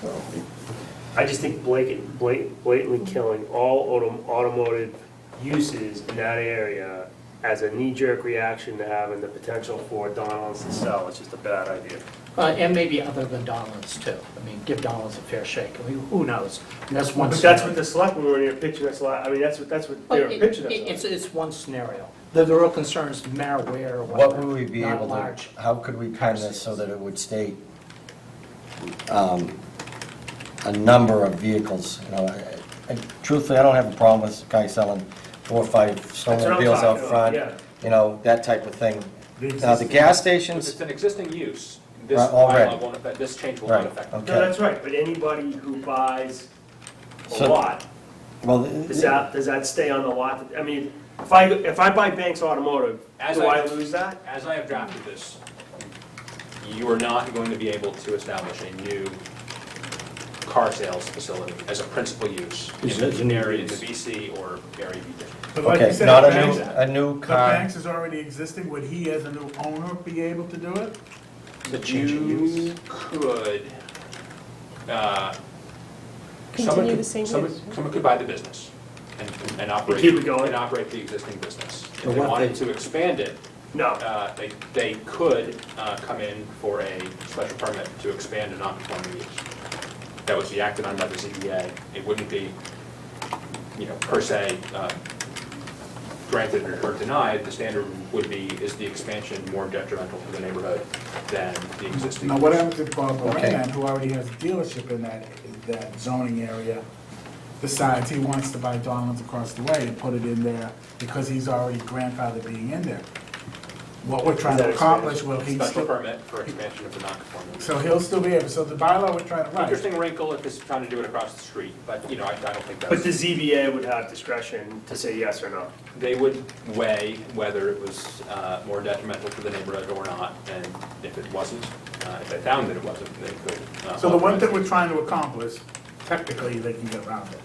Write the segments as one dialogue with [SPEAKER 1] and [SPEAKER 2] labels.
[SPEAKER 1] so.
[SPEAKER 2] I just think blatant, blat- blatantly killing all autom- automotive uses in that area as a knee-jerk reaction to having the potential for Donalds to sell, it's just a bad idea.
[SPEAKER 3] Uh, And maybe other than Donlands too. I mean, give Donlands a fair shake. I mean, who knows? And that's one
[SPEAKER 2] But that's what
[SPEAKER 3] scenario.
[SPEAKER 2] the selectmen were in their picture, that's a lot, I mean, that's what, that's what
[SPEAKER 3] Well,
[SPEAKER 2] they were
[SPEAKER 3] it-
[SPEAKER 2] pitching
[SPEAKER 3] it- It's,
[SPEAKER 2] us on.
[SPEAKER 3] it's one scenario. The the real concern is malware or
[SPEAKER 1] What
[SPEAKER 3] whatever.
[SPEAKER 1] would we be
[SPEAKER 3] not
[SPEAKER 1] able to,
[SPEAKER 3] large.
[SPEAKER 1] how could we pen this so that it would state um, a number of vehicles, you know, I- I- truthfully, I don't have a problem with this guy selling four or five
[SPEAKER 2] what I'm
[SPEAKER 1] snowmobiles out
[SPEAKER 2] talking about,
[SPEAKER 1] front,
[SPEAKER 2] yeah.
[SPEAKER 1] you know, that type of thing.
[SPEAKER 2] The
[SPEAKER 1] Now, the gas
[SPEAKER 4] If
[SPEAKER 1] stations,
[SPEAKER 4] it's an existing use, this
[SPEAKER 1] Right, already.
[SPEAKER 4] bylaw won't affect, this change will not
[SPEAKER 1] right,
[SPEAKER 4] affect. it.
[SPEAKER 2] No,
[SPEAKER 1] okay,
[SPEAKER 2] that's right, but anybody who buys a
[SPEAKER 1] So-
[SPEAKER 2] lot,
[SPEAKER 1] well,
[SPEAKER 2] does that, does that stay on the lot? I mean, if I, if I buy Banks Automotive,
[SPEAKER 4] As
[SPEAKER 2] do
[SPEAKER 4] I-
[SPEAKER 2] I lose that?
[SPEAKER 4] As I have drafted this, you are not going to be able to establish a new car sales facility as a principal use.
[SPEAKER 3] Is
[SPEAKER 4] in-
[SPEAKER 3] it an area?
[SPEAKER 4] In the BC or area B district.
[SPEAKER 5] But like you
[SPEAKER 1] okay,
[SPEAKER 5] said,
[SPEAKER 1] not
[SPEAKER 5] the
[SPEAKER 1] a new,
[SPEAKER 5] banks,
[SPEAKER 1] a new
[SPEAKER 5] the
[SPEAKER 1] car,
[SPEAKER 5] banks is already existing, would he as a new owner be able to do it?
[SPEAKER 4] But
[SPEAKER 3] Change of
[SPEAKER 4] you
[SPEAKER 3] use.
[SPEAKER 4] could, uh, someone
[SPEAKER 6] Continue the
[SPEAKER 4] could,
[SPEAKER 6] same
[SPEAKER 4] someone,
[SPEAKER 6] use.
[SPEAKER 4] someone could buy the business and, and operate.
[SPEAKER 2] keep it going.
[SPEAKER 4] And operate the existing business. If
[SPEAKER 3] But
[SPEAKER 4] they
[SPEAKER 3] what
[SPEAKER 4] wanted
[SPEAKER 3] they-
[SPEAKER 4] to expand it,
[SPEAKER 2] No,
[SPEAKER 4] uh, they, they could uh, come in for a special permit to expand a non-conforming use. That would be acted on by the ZBA. It wouldn't be, you know, per se uh, granted or or denied. The standard would be, is the expansion more detrimental to the neighborhood than the existing?
[SPEAKER 5] Now, what
[SPEAKER 4] use?
[SPEAKER 5] happens if Bob
[SPEAKER 1] Okay.
[SPEAKER 5] Moran, who already has a dealership in that, that zoning area, decides he wants to buy Donald's across the way and put it in there because he's already grandfathered being in there? What we're trying
[SPEAKER 2] Is
[SPEAKER 5] to
[SPEAKER 2] that
[SPEAKER 5] accomplish, will he
[SPEAKER 4] Special
[SPEAKER 5] still,
[SPEAKER 4] permit for expansion of the non-conforming. use.
[SPEAKER 5] so he'll still be able, so the bylaw we're trying to write,
[SPEAKER 4] Interesting wrinkle if it's trying to do it across the street, but, you know, I I don't think that's.
[SPEAKER 2] but the ZBA would have discretion to say yes or no.
[SPEAKER 4] They would weigh whether it was uh, more detrimental to the neighborhood or not, and if it wasn't, uh, if they found that it wasn't, they could. uh,
[SPEAKER 5] so the one thing
[SPEAKER 4] authorize
[SPEAKER 5] we're trying to accomplish, technically, they can get around it.
[SPEAKER 4] it.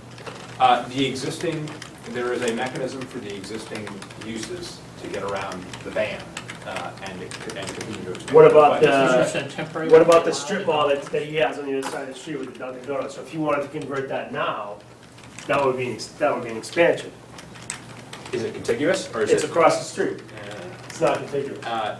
[SPEAKER 4] Uh, The existing, there is a mechanism for the existing uses to get around the ban uh, and it could- and continue to expand.
[SPEAKER 2] What about
[SPEAKER 4] But-
[SPEAKER 2] the-
[SPEAKER 3] It's just a temporary-
[SPEAKER 2] Uh, What about the strip mall that, that he has on the other side of the street with the Dunkin' Donuts? So if he wanted to convert that now, that would be, an ex- that would be an expansion.
[SPEAKER 4] Is it contiguous, or is
[SPEAKER 2] It's
[SPEAKER 4] it?
[SPEAKER 2] across the street,
[SPEAKER 4] uh,
[SPEAKER 2] it's not contiguous.
[SPEAKER 4] uh,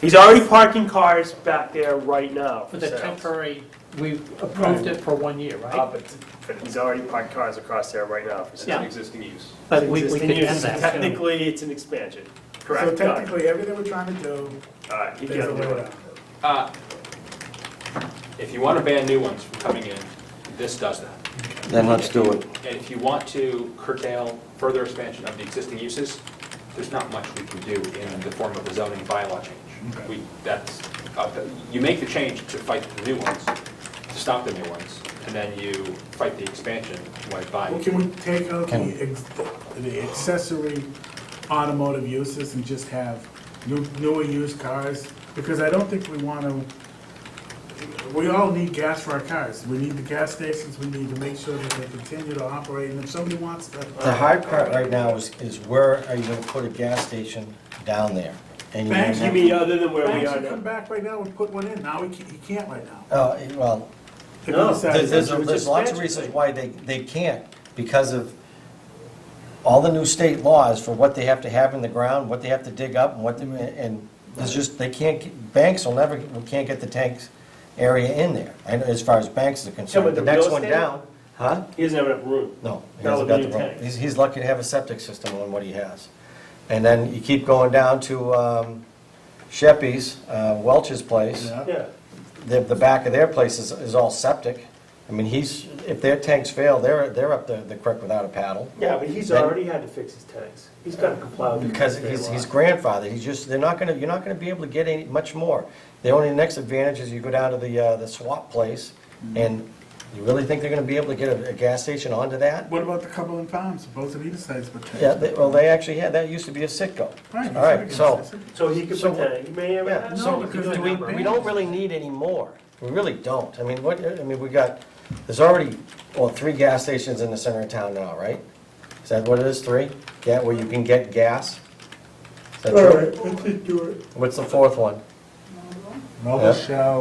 [SPEAKER 2] He's already parking cars back there right now
[SPEAKER 3] For
[SPEAKER 2] for
[SPEAKER 3] the
[SPEAKER 2] sales.
[SPEAKER 3] temporary, we approved it for one year,
[SPEAKER 2] Uh,
[SPEAKER 3] right?
[SPEAKER 2] but- but He's already parked cars across there right now for
[SPEAKER 4] It's
[SPEAKER 2] sale.
[SPEAKER 4] an
[SPEAKER 3] Yeah.
[SPEAKER 4] existing use.
[SPEAKER 3] But we we
[SPEAKER 2] Existing
[SPEAKER 3] could end
[SPEAKER 2] use,
[SPEAKER 3] that too.
[SPEAKER 2] Technically, it's an expansion,
[SPEAKER 5] So
[SPEAKER 2] correct?
[SPEAKER 5] technically, everything we're trying to do,
[SPEAKER 2] All right, you
[SPEAKER 5] there's a
[SPEAKER 2] gotta
[SPEAKER 5] way
[SPEAKER 2] do
[SPEAKER 5] around
[SPEAKER 2] it.
[SPEAKER 5] it.
[SPEAKER 4] Uh, If you want to ban new ones from coming in, this does that.
[SPEAKER 1] then let's do it.
[SPEAKER 4] And if you want to curtail further expansion of the existing uses, there's not much we can do in the form of a zoning bylaw change. We, that's, uh, you make the change to fight the new ones, to stop the new ones, and then you fight the expansion by
[SPEAKER 5] Well,
[SPEAKER 4] buying.
[SPEAKER 5] Can we take out
[SPEAKER 1] Can-
[SPEAKER 5] the ex- the accessory automotive uses and just have new- newer used cars? Because I don't think we want to, we all need gas for our cars. We need the gas stations, we need to make sure that they continue to operate, and if somebody wants to.
[SPEAKER 1] The hard part right now is, is where are you gonna put a gas station down there? And
[SPEAKER 5] Thank
[SPEAKER 2] You mean other than where we
[SPEAKER 5] Banks
[SPEAKER 2] are
[SPEAKER 5] would come
[SPEAKER 2] now?
[SPEAKER 5] back right now and put one in, now he can't, he can't right now.
[SPEAKER 1] Oh, well,
[SPEAKER 5] If he
[SPEAKER 2] No,
[SPEAKER 5] decides-
[SPEAKER 1] there's, there's,
[SPEAKER 2] It's
[SPEAKER 1] there's
[SPEAKER 2] just
[SPEAKER 1] lots of
[SPEAKER 2] magic.
[SPEAKER 1] reasons why they, they can't, because of all the new state laws for what they have to have in the ground, what they have to dig up, and what, they- and it's just, they can't, get- banks will never, can't get the tanks area in there, and as far as banks are
[SPEAKER 2] Yeah, but
[SPEAKER 1] concerned. The
[SPEAKER 2] the
[SPEAKER 1] next
[SPEAKER 2] real
[SPEAKER 1] one
[SPEAKER 2] estate-
[SPEAKER 1] down, huh?
[SPEAKER 2] He doesn't have enough room.
[SPEAKER 1] No. he
[SPEAKER 2] That
[SPEAKER 1] hasn't
[SPEAKER 2] would
[SPEAKER 1] got
[SPEAKER 2] be
[SPEAKER 1] the wrong-
[SPEAKER 2] intent.
[SPEAKER 1] He's, he's lucky to have a septic system on what he has. And then you keep going down to um, Sheppy's, uh, Welch's place.
[SPEAKER 5] Yeah.
[SPEAKER 2] Yeah,
[SPEAKER 1] The, the back of their place is, is all septic. I mean, he's, if their tanks fail, they're, they're up the, the creek without a paddle.
[SPEAKER 2] yeah, but he's
[SPEAKER 1] Then-
[SPEAKER 2] already had to fix his tanks. He's gotta comply with. the
[SPEAKER 1] Because
[SPEAKER 2] state
[SPEAKER 1] he's,
[SPEAKER 2] law.
[SPEAKER 1] he's grandfathered, he's just, they're not gonna, you're not gonna be able to get any, much more. The only next advantage is you go down to the, uh, the swap place,
[SPEAKER 5] Mm-hmm.
[SPEAKER 1] and you really think they're gonna be able to get a, a gas station onto that?
[SPEAKER 5] What about the couple in Palms, both of these sides but
[SPEAKER 1] Yeah, they- well, they actually had, that used to be a Sitco.
[SPEAKER 5] Right,
[SPEAKER 1] All right, so,
[SPEAKER 2] So he could
[SPEAKER 1] So-
[SPEAKER 2] put that, he may have.
[SPEAKER 1] yeah,
[SPEAKER 5] No,
[SPEAKER 1] so
[SPEAKER 5] because
[SPEAKER 1] do
[SPEAKER 5] they're
[SPEAKER 1] we,
[SPEAKER 5] not
[SPEAKER 1] we don't really need any more. We really don't. I mean, what, I mean, we got, there's already, well, three gas stations in the center of town now, right? Is that what it is, three? Yeah, where you can get gas? Is that true?
[SPEAKER 5] let's just do it.
[SPEAKER 1] What's the fourth one?
[SPEAKER 5] Mobile
[SPEAKER 1] Yeah.
[SPEAKER 5] Shell,